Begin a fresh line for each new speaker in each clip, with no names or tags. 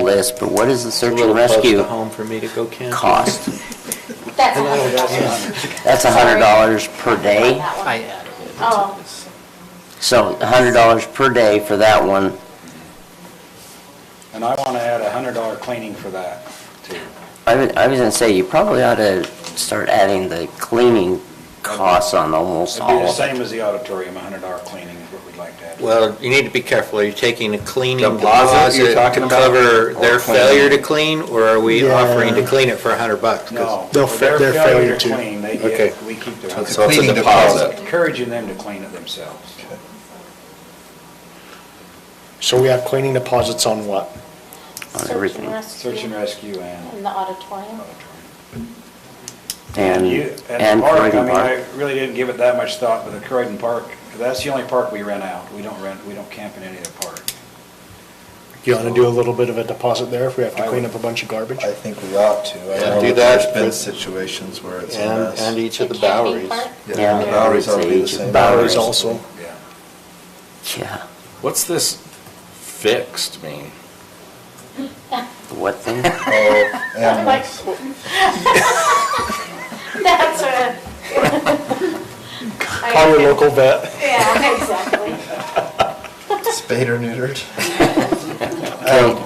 list, but what is the
A
search
little
and
close to
rescue
home for me to go camping.
cost?
That's
And I don't
$100.
That's hundred dollars per day,
That one.
I added it.
Oh.
so hundred dollars per day for that one.
And I want to add a hundred dollar cleaning for that, too.
I was, I was gonna say, you probably ought to start adding the cleaning costs on almost
It'd be
all
the
of them.
same as the auditorium, a hundred dollar cleaning is what we'd like to add.
Well, you need to be careful. Are you taking a cleaning
Deposit you're
deposit
talking
to
about?
cover
Or
their
cleaning?
failure to clean? Or are we
Yeah.
offering to clean it for a hundred bucks? 'Cause
No.
They'll
for
fa- their failure to-
clean, they
Okay.
get, we keep their.
So it's a
Cleaning
deposit.
Encouraging them to clean it themselves.
So we have cleaning deposits on what?
On
Search
everything.
and rescue.
Search and rescue and
In the auditorium.
auditorium.
And,
you-
and
the park, I
Croydon
mean,
Park.
I really didn't give it that much thought, but the Croydon Park, that's the only park we rent out. We don't rent, we don't camp in any other park.
You want to do a little bit of a deposit there if we have to
I
clean
would-
up a bunch of garbage?
I think we ought to. I
Yeah,
know
do that
that There's been
with-
situations where it's a
And,
mess.
and each of the
The camping
Boweries.
part?
Yeah, the
Yeah.
Bowery's ought to be the same.
Boweries also.
Yeah.
Yeah,
What's this fixed mean?
what thing?
Oh, animals.
That's a.
Call your local vet.
Yeah, exactly.
Spayed or neutered. Um,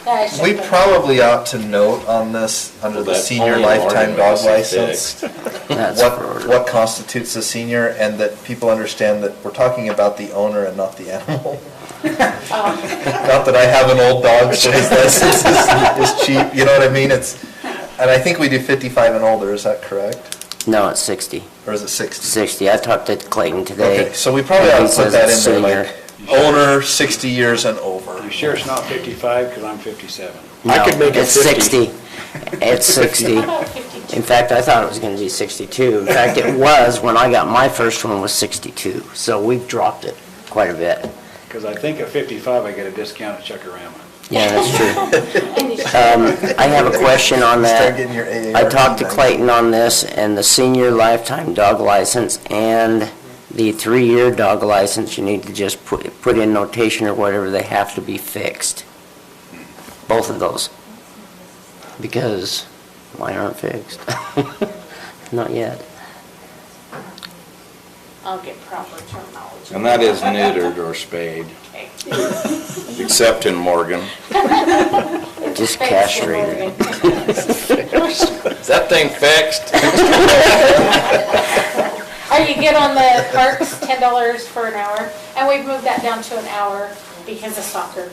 Okay,
That should
We
be-
probably ought to note on this, under
Well,
the
that's
senior
only an
lifetime
ordinary
dog
license
license,
that's
what,
for,
what constitutes a senior and that people understand that we're talking about the owner and not the animal. Not that I have an old dog, so his license is, is cheap, you know what I mean? It's, and I think we do fifty-five and older, is that correct?
no, it's sixty.
Or is it sixty?
Sixty, I talked to Clayton today.
Okay, so we probably
and
ought
he
to
says
put that
it's
in
senior.
there, like, owner sixty years and over.
You sure it's not 55, because I'm 57.
I could
No,
make it
it's
50.
It's sixty.
How about 52?
In fact, I thought it was gonna be sixty-two. In fact, it was, when I got my first one was sixty-two, so we've dropped it quite a bit.
Because I think at 55, I get a discount at Chuckarama.
Yeah, that's true.
And you-
Um, I have a question on that.
Start getting your AARP
I talked to
done.
Clayton on this, and the senior lifetime dog license and the three-year dog license, you need to just put, put in notation or whatever, they have to be fixed. Both of those. Because mine aren't fixed. Not yet.
I'll get proper terminology.
And that is neutered or spayed,
Okay.
except in Morgan.
Just
Thanks,
castrated.
Morgan.
Is that thing fixed?
Are you good on the parks, ten dollars for an hour? And we've moved that down to an hour because of soccer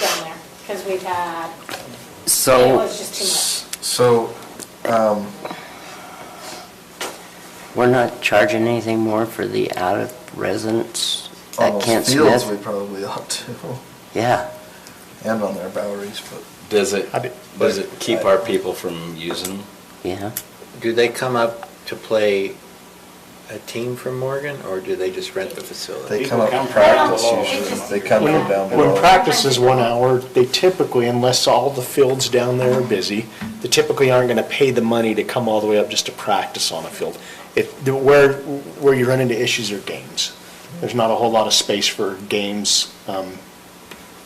down there, because we've had,
Oh.
it
So,
was just too much.
So,
we're not charging anything more for the out-of-residence
on
at Kent
those Oh, fields, we
Smith?
probably ought to,
Yeah.
and on their boweries, but.
Does it,
I did-
does it keep our people from using them?
Yeah.
Do they come up to play a team from Morgan or do they just rent the facility?
They
People
come up
come
and
from
practice
below.
usually, they come
When,
from down
when
below.
practice is one hour, they typically, unless all the fields down there are busy, they typically aren't going to pay the money to come all the way up just to practice on a field. If, the- where, where you run into issues are games. There's not a whole lot of space for games, um,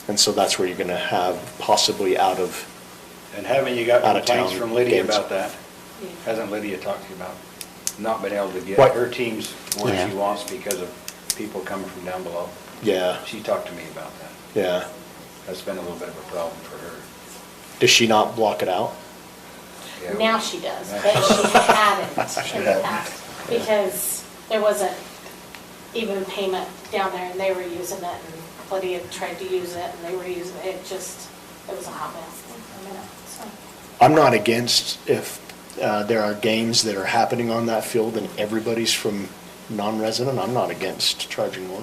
and so that's where you're going to have possibly out of,
And haven't you got
Out of
complaints
town
from Lydia
games.
about that?
Yeah.
Hasn't Lydia talked to you about not being able to get
What?
her teams where she
Yeah.
wants because of people coming from down below?
yeah,
She talked to me about that.
yeah.
That's been a little bit of a problem for her.
Does she not block it out?
Yeah.
Now she does, but she hadn't
She
in the
hadn't.
past, because there wasn't even payment down there, and they were using it, and Lydia tried to use it, and they were using it, it just, it was a hot mess. I mean, so.
I'm not against if uh, there are games that are happening on that field and everybody's from non-resident, I'm not against charging more.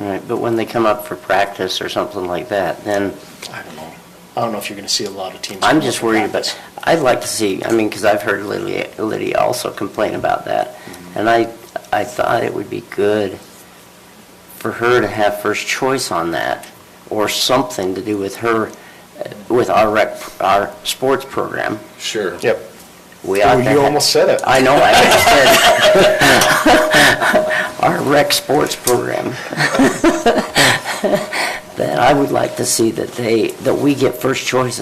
Right, but when they come up for practice or something like that, then
I don't know. I don't know if you're going to see a lot of teams.
I'm just worried
That's-
about, I'd like to see, I mean, because I've heard Lydia, Lydia also complain about that. And I, I thought it would be good for her to have first choice on that, or something to do with her, uh, with our rec, our sports program.
Sure.
Yep.
We
Ooh,
ought to
you
ha-
almost said it.
I know, I just said, our rec sports program. That I would like to see that they, that we get first choice